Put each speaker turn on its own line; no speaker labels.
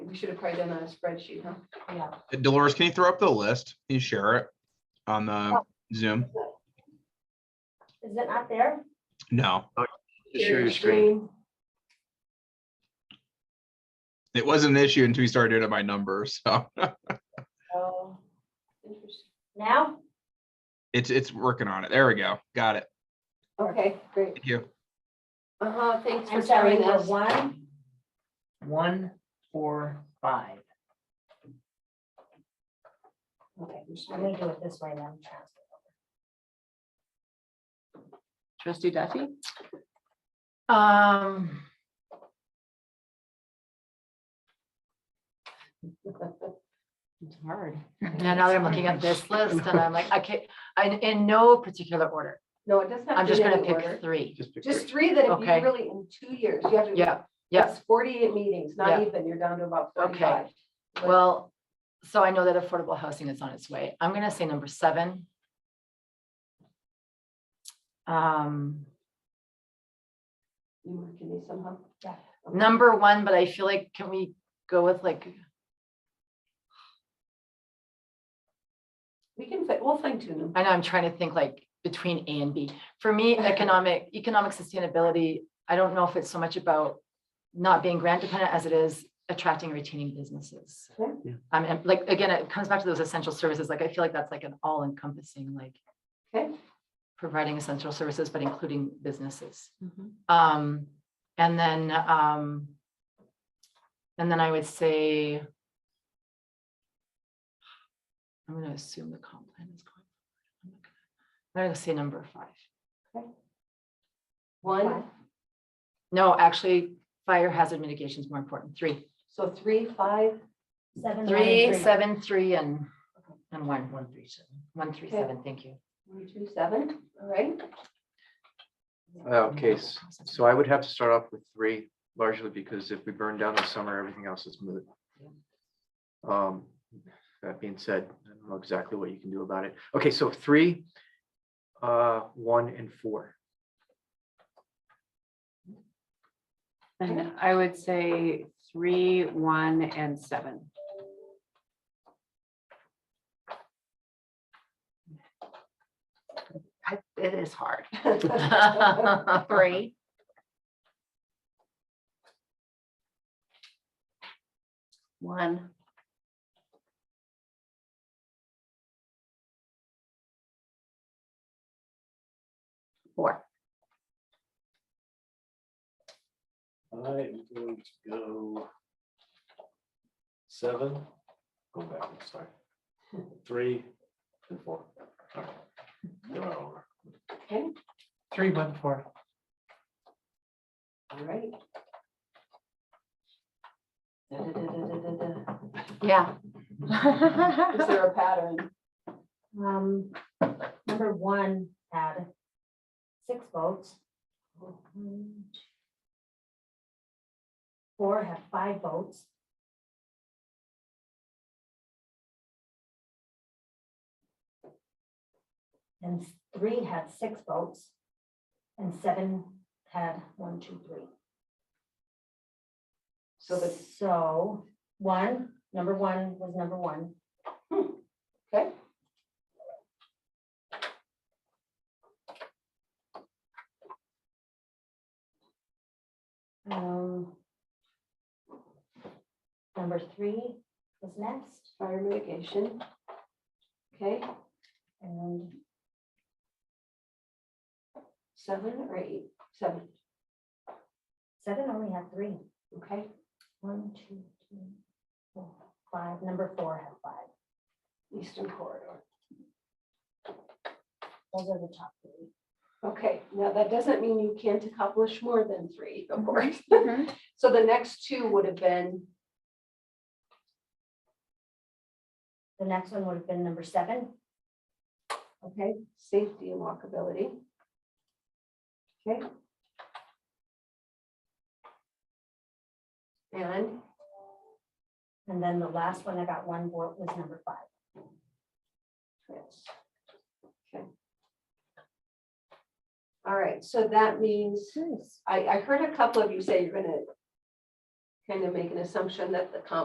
we should have probably done that on a spreadsheet, huh?
Yeah.
Dolores, can you throw up the list? Can you share it on the Zoom?
Is it not there?
No,
Just share your screen.
it wasn't an issue until we started doing it by number. So
Oh,
Interesting.
now?
it's, it's working on it. There we go. Got it.
Okay, great.
Thank you.
Uh-huh, thanks for
I'm sorry,
sharing
we're
this.
one,
One, four, five.
okay, I'm gonna do it this way then.
Trustee Duffy,
Um.
it's hard. Now now that I'm looking at this list and I'm like, I can't, I, in no particular order.
No, it doesn't have
I'm
to
just
be in
gonna
any
pick
order.
three.
Just pick
Just three that if you
Okay.
really, in two years, you have to.
Yeah, yeah.
It's Forty-eight meetings, not
Yeah.
even, you're down to about
Okay.
forty-five.
Well, so I know that affordable housing is on its way. I'm gonna say number seven. Um,
You work in these somehow?
Yeah.
number one, but I feel like, can we go with like,
We can, fi- we'll fine tune them.
I know I'm trying to think like between A and B. For me, economic, economic sustainability, I don't know if it's so much about not being grant dependent as it is attracting and retaining businesses.
Yeah.
Yeah.
Um, and like, again, it comes back to those essential services. Like, I feel like that's like an all encompassing, like
Okay.
providing essential services, but including businesses. Um, and then, um, and then I would say, I'm gonna assume the comp plan is going. I'm not gonna- I'm gonna say number five.
One,
No, actually, fire hazard mitigation is more important. Three,
so three, five,
Seven, nine,
three, seven, three, and, and one,
One, three, seven.
one, three,
Okay.
seven, thank you.
one, two, seven, all right?
Uh, Okay, s- so I would have to start off with three largely because if we burn down the summer, everything else is moot. Um, that being said, I don't know exactly what you can do about it. Okay, so three, uh, one and four.
Okay.
And I would say three, one, and seven. I- It is hard.
Three,
One. Four.
I am going to go seven, go back, I'm sorry, three and four. All right. They're out of order.
Three, one, four.
All right. Da-da-da-da-da-da-da.
yeah.
Is there a pattern?
Um, number one had six votes. Four had five votes. And three had six votes. And seven had one, two, three.
So the,
So, one, number one was number one. Hmm,
okay,
Um, Number three was next.
fire mitigation. Okay,
And
seven or eight, seven,
seven only had three.
okay?
One, two, three, four, five. Number four had five.
Eastern Corridor.
Those are the top three.
Okay, now that doesn't mean you can't accomplish more than three, of course. So the next two would have been,
The next one would have been number seven.
okay, safety and walkability. Okay. And,
And then the last one that got one vote was number five.
yes. Okay. All right, so that means, I, I heard a couple of you say you're gonna kind of make an assumption that the comp